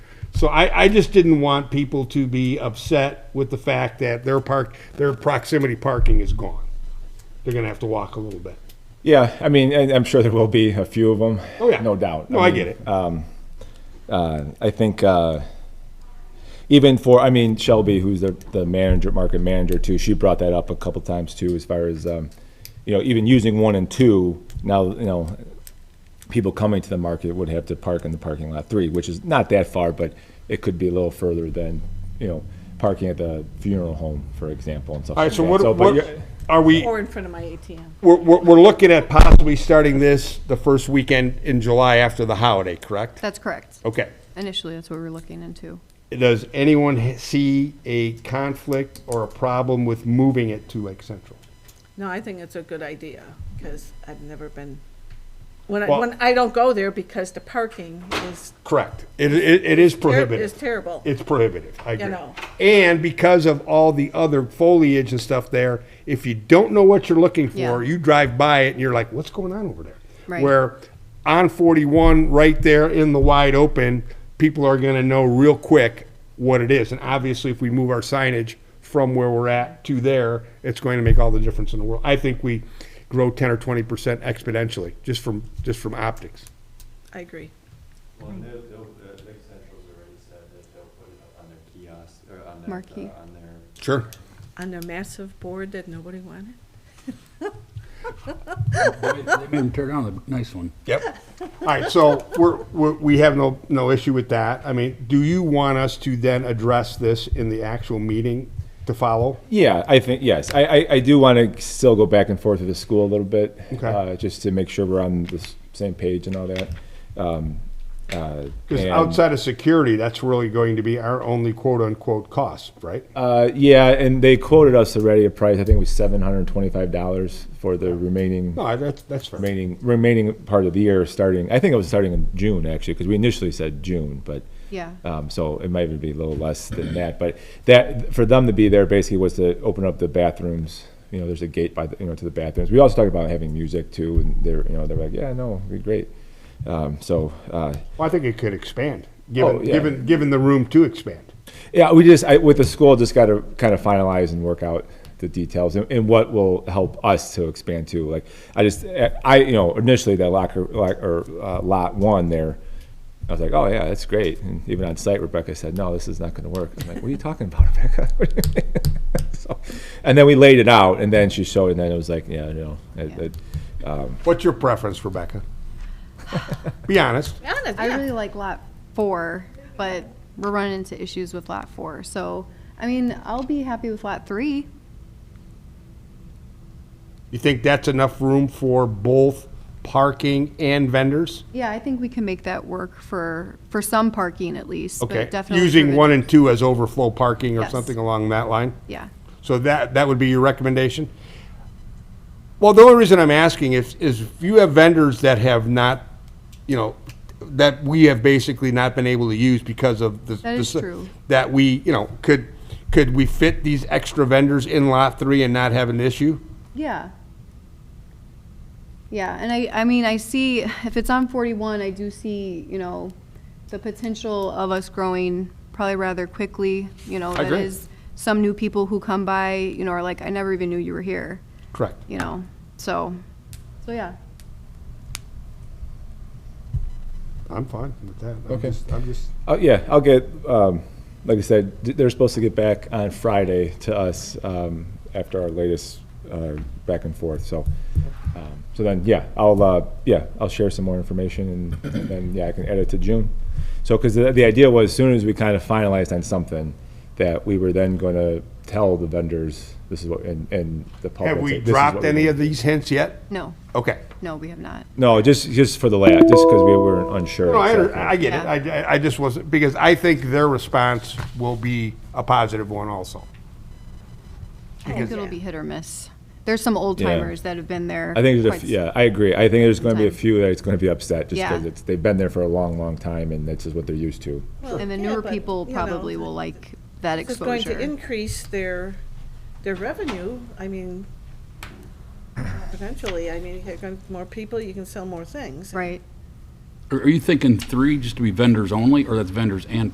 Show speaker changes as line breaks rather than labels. So I, I just didn't want people to be upset with the fact that their park, their proximity parking is gone. They're gonna have to walk a little bit.
Yeah, I mean, and I'm sure there will be a few of them.
Oh, yeah.
No doubt.
No, I
mean,
get it.
Um, uh, I think uh, even for, I mean, Shelby, who's the, the manager, market manager too, she brought that up a couple times too, as far as, um, you know, even using one and two, now, you know, people coming to the market would have to park in the parking lot three, which is not that far, but it could be a little further than, you know, parking at the funeral home, for example, and stuff
All
like
right,
that.
so what,
but
what,
you're-
are we,
Or in front of my ATM.
we're, we're, we're looking at possibly starting this the first weekend in July after the holiday, correct?
That's correct.
Okay.
Initially, that's what we were looking into.
Does anyone ha- see a conflict or a problem with moving it to Lake Central?
No, I think it's a good idea, because I've never been, when I,
Well-
when I don't go there because the parking is,
Correct. It, it, it is
ter-
prohibited.
is terrible.
It's prohibitive, I agree.
know.
And because of all the other foliage and stuff there, if you don't know what you're looking for,
Yeah.
you drive by it and you're like, what's going on over there?
Right.
Where on 41, right there in the wide open, people are going to know real quick what it is. And obviously, if we move our signage from where we're at to there, it's going to make all the difference in the world. I think we grow 10 or 20% exponentially just from just from optics.
I agree.
Well, and they'll, they'll, uh, Lake Central's already said that they'll put it up on their kiosks, or on their,
Marquee.
uh, on their,
Sure.
On a massive board that nobody wanted.
They made him tear down the nice one.
Yep. All right, so we're, we're, we have no, no issue with that. I mean, do you want us to then address this in the actual meeting to follow?
Yeah, I think, yes. I, I, I do want to still go back and forth with the school a little bit.
Okay.
uh, Just to make sure we're on the s- same page and all that.
Because outside of security, that's really going to be our only quote-unquote cost, right?
Uh, yeah, and they quoted us already a price, I think it was seven hundred and twenty-five dollars for the remaining,
No, I- that's, that's fair.
remaining, remaining part of the year starting, I think it was starting in June actually, because we initially said June, but.
Yeah.
Uh,
Um, so it might even be a little less than that, but that, for them to be there basically was to open up the bathrooms. You know, there's a gate by, the you know, to the bathrooms. We also talked about having music too, and they're, you know, they're like, yeah, no, it'd be great. Um, so, uh,
Well, I think it could expand,
Oh,
given,
yeah.
given, given the room to expand.
yeah, we just, I, with the school, just got to kind of finalize and work out the details and, and what will help us to expand to. Like, I just, eh, I, you know, initially that locker, lock, or uh, lot one there, I was like, oh yeah, that's great. And even on site, Rebecca said, no, this is not going to work. I'm like, what are you talking about, Rebecca? so, and then we laid it out, and then she showed, and then it was like, yeah, no, it,
Yeah.
it,
What's your preference, Rebecca? Be honest.
Honest,
I
yeah.
really like lot four, but we're running into issues with lot four. So, I mean, I'll be happy with lot three.
You think that's enough room for both parking and vendors?
Yeah, I think we can make that work for, for some parking at least. but
Okay,
definitely
using
for-
one and two as overflow parking or
Yes.
something along that line?
Yeah.
So that, that would be your recommendation? Well, the only reason I'm asking is, is if you have vendors that have not, you know, that we have basically not been able to use because of the.
That is
the-
true.
That we, you know, could, could we fit these extra vendors in lot three and not have an issue?
Yeah. Yeah, and I, I mean, I see, if it's on forty-one, I do see, you know, the potential of us growing probably rather quickly, you know, that
agree.
is, some new people who come by, you know, are like, I never even knew you were here,
Correct.
you know, so, so, yeah.
I'm fine with that. I'm
Okay.
just- I'm just,
Oh, yeah, I'll get, um, like I said, th- they're supposed to get back on Friday to us, um, after our latest, uh, back and forth, so. um, So then, yeah, I'll, uh, yeah, I'll share some more information and and then, yeah, I can edit to June. So, because the, the idea was as soon as we kind of finalized on something, that we were then going to tell the vendors, this is what, and, and the public.
have
that
we
this is what
dropped
we
any
need.
of these hints yet?
No,
Okay.
no, we have not.
No, just, just for the layout, just because we were unsure.
No, I, under-
exactly.
I get it. I- I, I just wasn't, because I think their response will be a positive one also.
I think it'll be hit or miss. There's some old
Yeah.
timers that have been there.
I think there's a, f-
quite s-
yeah, I agree. I think there's going to be a
time.
few that's going to be upset just
Yeah.
because it's they've been there for a long, long time and that's just what they're used to.
And the
Yeah,
newer
but,
people
you know,
probably will like that
This is going to
exposure.
increase their, their revenue, I mean, potentially, I mean, you got more people, you can sell more things.
Right.
Are are you thinking three just to be vendors only, or that's vendors and